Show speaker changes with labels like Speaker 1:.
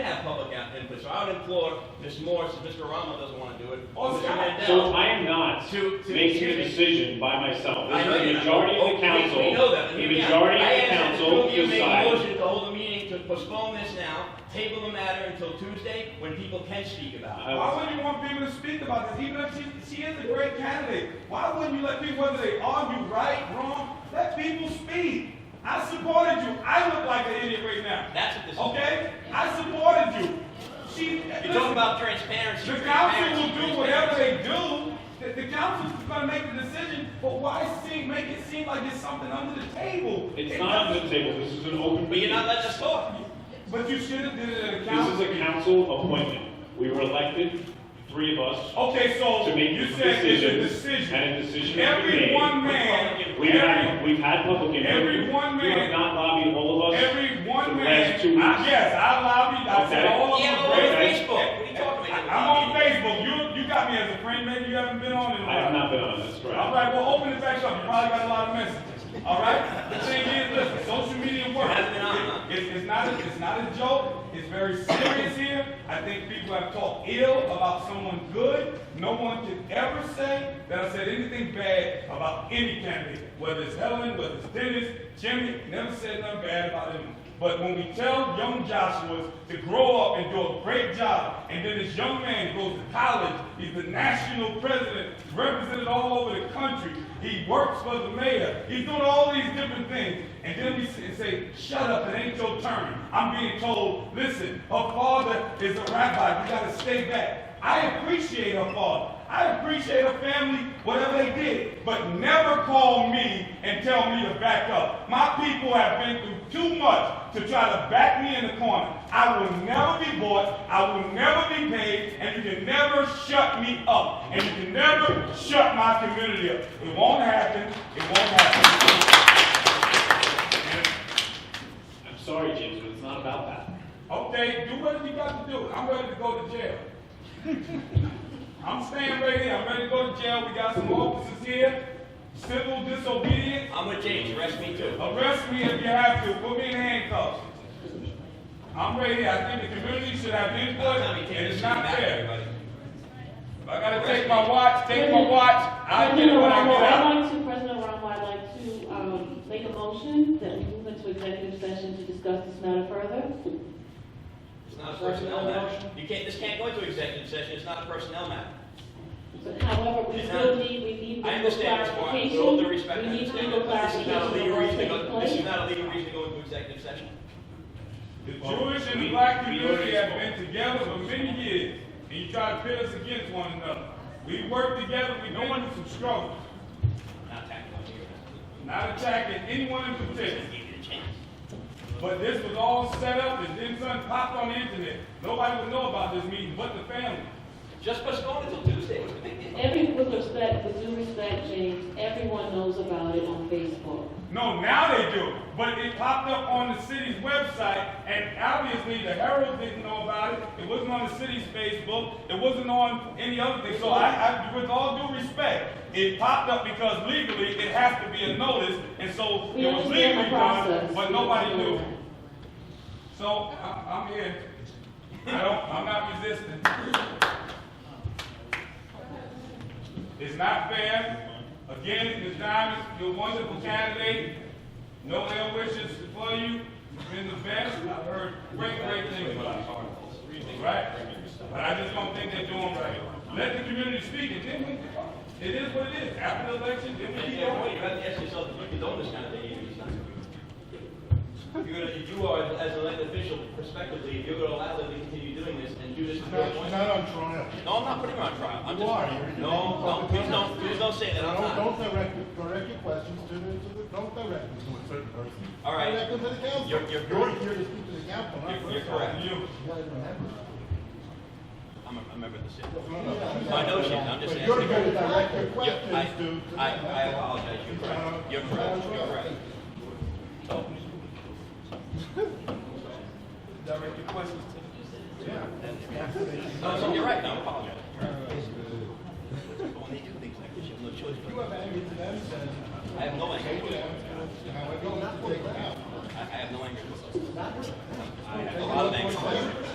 Speaker 1: place. So I would implore Ms. Morris, if Mr. Rama doesn't want to do it,
Speaker 2: Oh,
Speaker 1: or Mr.
Speaker 3: So
Speaker 1: Mandel.
Speaker 3: I am not
Speaker 1: To- to-
Speaker 3: making a decision by myself.
Speaker 1: I know
Speaker 3: The
Speaker 1: you're not.
Speaker 3: majority
Speaker 1: Oh,
Speaker 3: of
Speaker 1: we-
Speaker 3: the council,
Speaker 1: We know that.
Speaker 3: the
Speaker 1: Yeah.
Speaker 3: majority
Speaker 1: I
Speaker 3: of the
Speaker 1: ask that
Speaker 3: council
Speaker 1: two of you make a
Speaker 3: decides.
Speaker 1: motion to hold a meeting to postpone this now, table the matter until Tuesday, when people can speak about it.
Speaker 3: I-
Speaker 2: Why wouldn't you want people to speak about this? Even if she, she is a great candidate, why wouldn't you let people, whether they argue right, wrong, let people speak? I supported you. I look like an idiot right now.
Speaker 1: That's what this is.
Speaker 2: Okay? I supported you. She,
Speaker 3: Uh,
Speaker 1: You're talking
Speaker 2: listen,
Speaker 1: about transparency.
Speaker 2: the council
Speaker 1: transparency,
Speaker 2: will do whatever they do. The, the council's gonna make the decision, but why seem, make it seem like it's something under the table?
Speaker 3: It's
Speaker 2: It
Speaker 3: not on the
Speaker 2: doesn't-
Speaker 3: table, this is an open
Speaker 1: But you're
Speaker 3: meeting.
Speaker 1: not letting us talk.
Speaker 2: But you should have did it at a
Speaker 3: This
Speaker 2: council.
Speaker 3: is a council appointment. We were elected, three of us,
Speaker 2: Okay, so
Speaker 3: to make
Speaker 2: you said it's a decision.
Speaker 3: decisions. And a decision has been
Speaker 2: Every
Speaker 3: made.
Speaker 2: one man,
Speaker 3: We've had,
Speaker 2: every,
Speaker 3: we've had public input.
Speaker 2: Every one
Speaker 3: You
Speaker 2: man-
Speaker 3: have not lobbied all of us.
Speaker 2: every one
Speaker 3: the
Speaker 2: man.
Speaker 3: last two weeks.
Speaker 2: I- Yes, I lobbied, I said
Speaker 3: Okay.
Speaker 2: all of
Speaker 1: Yeah,
Speaker 2: them.
Speaker 1: but we're on
Speaker 3: Okay.
Speaker 1: Facebook. What are you talking about?
Speaker 2: I'm on Facebook, you, you got me as a friend, maybe you haven't been on in a while.
Speaker 3: I have not been on this,
Speaker 2: All
Speaker 3: right?
Speaker 2: right, well, open it back up, you probably got a lot of messages, all right? The thing is, listen, social media works.
Speaker 1: Hasn't been on, huh?
Speaker 2: It's, it's not, a- it's not a joke, it's very serious here. I think people have talked ill about someone good. No one can ever say that I said anything bad about any candidate, whether it's Helen, whether it's Dennis, Jimmy, never said nothing bad about him. But when we tell young Joshua's to grow up and do a great job, and then this young man goes to college, he's the national president, represented all over the country, he works for the mayor, he's doing all these different things, and then we s- say, shut up, it ain't your turn. I'm being told, listen, her father is a rabbi, you gotta stay back. I appreciate her father. I appreciate her family, whatever they did, but never call me and tell me to back up. My people have been through too much to try to back me in the corner. I will never be bought, I will never be paid, and you can never shut me up, and you can never shut my community up. It won't happen, it won't happen.
Speaker 3: I'm sorry, James, but it's not about that.
Speaker 2: Okay, do what you got to do. I'm ready to go to jail. I'm staying right here. I'm ready to go to jail. We got some officers here. Civil disobedience.
Speaker 1: I'm with James, arrest me too.
Speaker 2: Arrest me if you have to. Put me in handcuffs. I'm right here. I think the community should have input,
Speaker 1: Tommy, take
Speaker 2: and
Speaker 1: this
Speaker 2: it's
Speaker 1: to the
Speaker 2: not
Speaker 1: back,
Speaker 2: fair.
Speaker 1: everybody.
Speaker 2: If I gotta take my watch, take my watch. I'll get it when I get out.
Speaker 4: I'd like to, President Obama, I'd like to um, make a motion that we move into executive session to discuss this matter further.
Speaker 1: It's not a personnel matter. You can't, this can't go into executive session, it's not a personnel matter.
Speaker 4: But however, we still need, we need
Speaker 1: I
Speaker 4: legal
Speaker 1: understand this point, with all due respect, I
Speaker 4: clarification. We need
Speaker 1: understand
Speaker 4: legal
Speaker 1: that this is not a legal reason to go, this is
Speaker 4: clarification of what's taking place.
Speaker 1: not a legal reason to go into executive session.
Speaker 2: The Jewish and the black community have been together for many years, and you try to pit us against one another. We work together, we go into some struggles,
Speaker 1: Not tactical here.
Speaker 2: not attacking anyone in particular.
Speaker 1: Give you the chance.
Speaker 2: But this was all set up and then something popped on the internet. Nobody would know about this meeting but the family.
Speaker 1: Just postpone it till Tuesday, it's a big deal.
Speaker 4: Every, with respect, with due respect, James, everyone knows about it on Facebook.
Speaker 2: No, now they do. But it popped up on the city's website, and obviously the Herald didn't know about it. It wasn't on the city's Facebook. It wasn't on any other thing. So I, I with all due respect, it popped up because legally it has to be a notice, and so
Speaker 4: We
Speaker 2: it was
Speaker 4: understand the
Speaker 2: legally done,
Speaker 4: process.
Speaker 2: but nobody knew. So I, I'm here. I don't. I'm not resisting. It's not fair. Again, Ms. Diamond, you're a wonderful candidate. No ill wishes for you. You've been the best. I've heard great, great things about you. Right? But I just don't think they're doing right. Let the community speak and then we, it is what it is. After the election, then we
Speaker 1: And
Speaker 2: keep
Speaker 1: you know,
Speaker 2: going.
Speaker 1: you have to ask yourself, if you condone this kind of thing, you're not gonna do it. You're gonna, you are, as an elected official, prospectively, if you're gonna allow them to continue doing this and do this to your
Speaker 5: Not,
Speaker 1: appointment.
Speaker 5: not on trial.
Speaker 1: No, I'm not putting her on trial. I'm
Speaker 5: You
Speaker 1: just.
Speaker 5: are.
Speaker 1: No,
Speaker 5: You're- you're
Speaker 1: no,
Speaker 5: making
Speaker 1: please don't, please don't say that. I'm
Speaker 5: Don't,
Speaker 1: not.
Speaker 5: don't direct, your- direct your questions to the, to the, don't direct them to a certain person.
Speaker 1: All right.
Speaker 5: Direct them to the council.
Speaker 1: You're- you're correct.
Speaker 5: here to speak to the council, not
Speaker 1: You're-
Speaker 5: for
Speaker 1: you're
Speaker 5: us.
Speaker 1: correct.
Speaker 5: You guys don't have it.
Speaker 1: I'm a, I'm a member of the city.
Speaker 5: No, no, no.
Speaker 1: I know she's, I'm just
Speaker 5: But
Speaker 1: asking.
Speaker 5: you're here to
Speaker 1: her.
Speaker 5: direct your
Speaker 1: Yeah, I,
Speaker 5: questions to. to the
Speaker 1: I, I
Speaker 5: council.
Speaker 1: apologize. You're correct. You're correct. You're correct. So,
Speaker 2: Direct your questions to
Speaker 1: no, so you're right. No, I apologize. You're right. But when they do things like this, you have no choice.
Speaker 5: You have anger to them, then.
Speaker 1: but- I have no
Speaker 5: Say to
Speaker 1: anger.
Speaker 5: them, however, not for them.
Speaker 1: I I have no anger. I have a lot of anger.